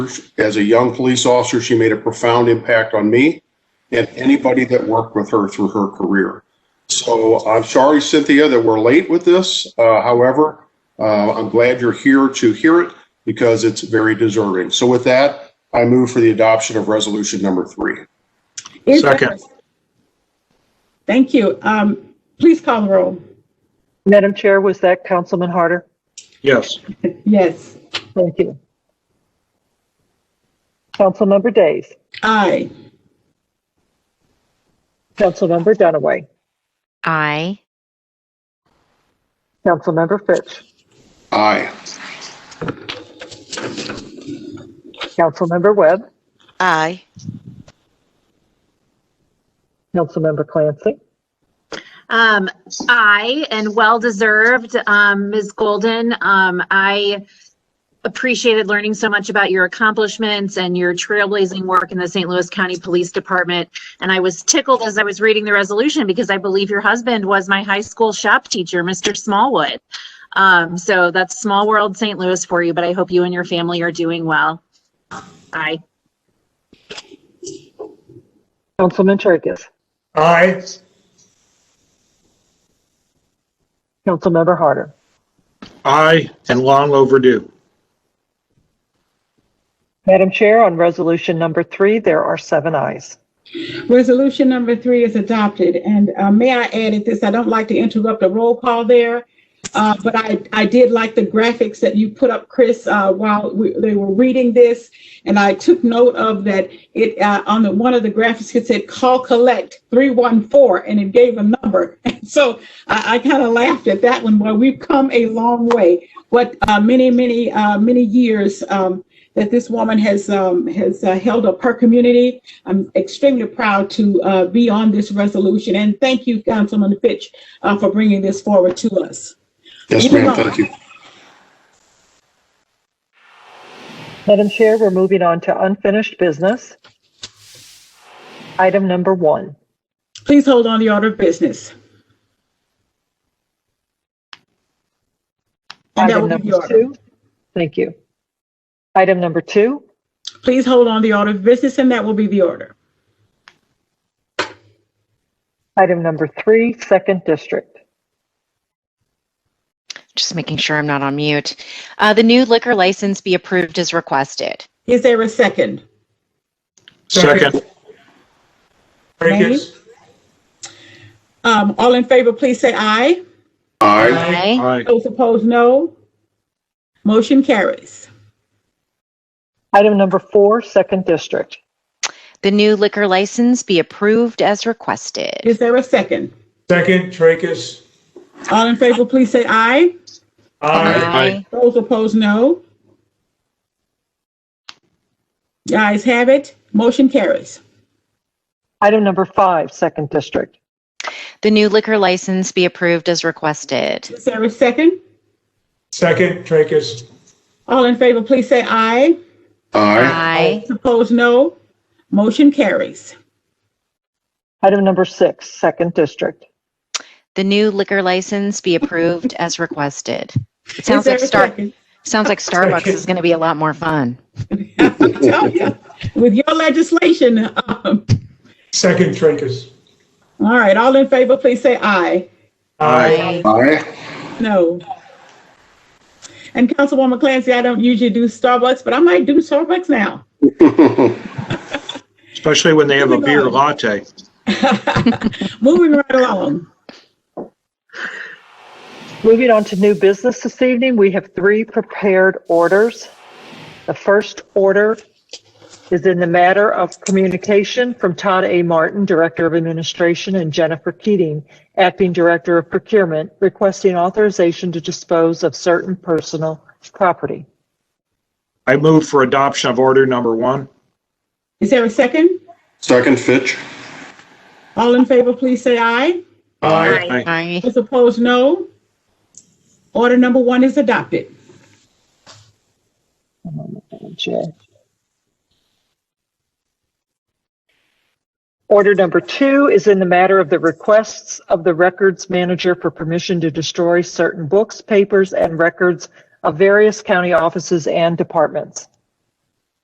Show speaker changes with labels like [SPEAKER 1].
[SPEAKER 1] As a young police officer, she made a profound impact on me and anybody that worked with her through her career. So I'm sorry, Cynthia, that we're late with this. Uh, However, uh, I'm glad you're here to hear it because it's very deserving. So with that, I move for the adoption of resolution number three.
[SPEAKER 2] Is there-
[SPEAKER 3] Second.
[SPEAKER 2] Thank you. Um, Please call the roll.
[SPEAKER 4] Madam Chair, was that Councilman Harder?
[SPEAKER 3] Yes.
[SPEAKER 2] Yes,
[SPEAKER 4] Thank you. Councilmember Days,
[SPEAKER 2] aye.
[SPEAKER 4] Councilmember Dunaway,
[SPEAKER 5] I,
[SPEAKER 4] Councilmember Fitch,
[SPEAKER 1] Aye.
[SPEAKER 4] Councilmember Webb,
[SPEAKER 6] Aye.
[SPEAKER 4] Councilmember Clancy,
[SPEAKER 7] Um, I, and well deserved, um, Ms. Golden, um, I appreciated learning so much about your accomplishments and your trailblazing work in the St. Louis County Police Department. And I was tickled as I was reading the resolution because I believe your husband was my high school shop teacher, Mr. Smallwood. Um, so that's small world St. Louis for you, but I hope you and your family are doing well. Aye.
[SPEAKER 4] Councilman Tracus,
[SPEAKER 3] Aye.
[SPEAKER 4] Councilmember Harder,
[SPEAKER 3] Aye, and long overdue.
[SPEAKER 4] Madam Chair, on resolution number three, there are seven ayes.
[SPEAKER 2] Resolution number three is adopted. And uh, may I add at this, I don't like to interrupt the roll call there, uh, but I, I did like the graphics that you put up, Chris, uh, while we- they were reading this. And I took note of that it, uh, on the, one of the graphics, it said, call collect 314, and it gave a number. And So I, I kind of laughed at that one, Well, we've come a long way. What uh, many, many, uh, many years um, that this woman has, um, has uh, held up her community. I'm extremely proud to uh, be on this resolution, and thank you, Councilman Fitch, uh, for bringing this forward to us.
[SPEAKER 1] Yes, ma'am, thank you.
[SPEAKER 4] Madam Chair, we're moving on to unfinished business. Item number one,
[SPEAKER 2] Please hold on the order of business. And that
[SPEAKER 4] item
[SPEAKER 2] will be the
[SPEAKER 4] number
[SPEAKER 2] order.
[SPEAKER 4] two. Thank you. Item number two,
[SPEAKER 2] Please hold on the order of business, and that will be the order.
[SPEAKER 4] item number three, second district.
[SPEAKER 5] just making sure I'm not on mute. Uh, the new liquor license be approved as requested.
[SPEAKER 2] Is there a second?
[SPEAKER 3] Second.
[SPEAKER 2] Tracus. Um, All in favor, please say aye.
[SPEAKER 1] Aye.
[SPEAKER 5] I,
[SPEAKER 3] Aye.
[SPEAKER 2] Those opposed, no. Motion carries.
[SPEAKER 4] Item number four, second district.
[SPEAKER 5] the new liquor license be approved as requested.
[SPEAKER 2] Is there a second?
[SPEAKER 8] Second, Tracus.
[SPEAKER 2] All in favor, please say aye.
[SPEAKER 5] I,
[SPEAKER 2] Those opposed, no. The ayes have it. Motion carries.
[SPEAKER 4] Item number five, second district.
[SPEAKER 5] the new liquor license be approved as requested.
[SPEAKER 2] Is there a second?
[SPEAKER 8] Second, Tracus.
[SPEAKER 2] All in favor, please say aye.
[SPEAKER 1] Aye.
[SPEAKER 5] I,
[SPEAKER 2] Opposed, no. Motion carries.
[SPEAKER 4] Item number six, second district.
[SPEAKER 5] the new liquor license be approved as requested. It
[SPEAKER 2] Is
[SPEAKER 5] sounds
[SPEAKER 2] there
[SPEAKER 5] like
[SPEAKER 2] a
[SPEAKER 5] Star,
[SPEAKER 2] second?
[SPEAKER 5] sounds like Starbucks is going to be a lot more fun.
[SPEAKER 2] I tell ya, With your legislation. um,
[SPEAKER 8] Second, Tracus.
[SPEAKER 2] All right, all in favor, please say aye.
[SPEAKER 3] Aye.
[SPEAKER 5] I,
[SPEAKER 1] Aye.
[SPEAKER 2] No. And Councilwoman Clancy, I don't usually do Starbucks, but I might do Starbucks now.
[SPEAKER 3] Especially when they have a beer latte.
[SPEAKER 2] Moving right along.
[SPEAKER 4] Moving on to new business this evening, we have three prepared orders. The first order is in the matter of communication from Todd A. Martin, Director of Administration, and Jennifer Keating, Acting Director of Procurement, requesting authorization to dispose of certain personal property.
[SPEAKER 3] I move for adoption of order number one.
[SPEAKER 2] Is there a second?
[SPEAKER 1] Second, Fitch.
[SPEAKER 2] All in favor, please say aye.
[SPEAKER 8] Aye.
[SPEAKER 5] I,
[SPEAKER 2] Those opposed, no. Order number one is adopted.
[SPEAKER 4] Madam Chair. Order number two is in the matter of the requests of the records manager for permission to destroy certain books, papers, and records of various county offices and departments.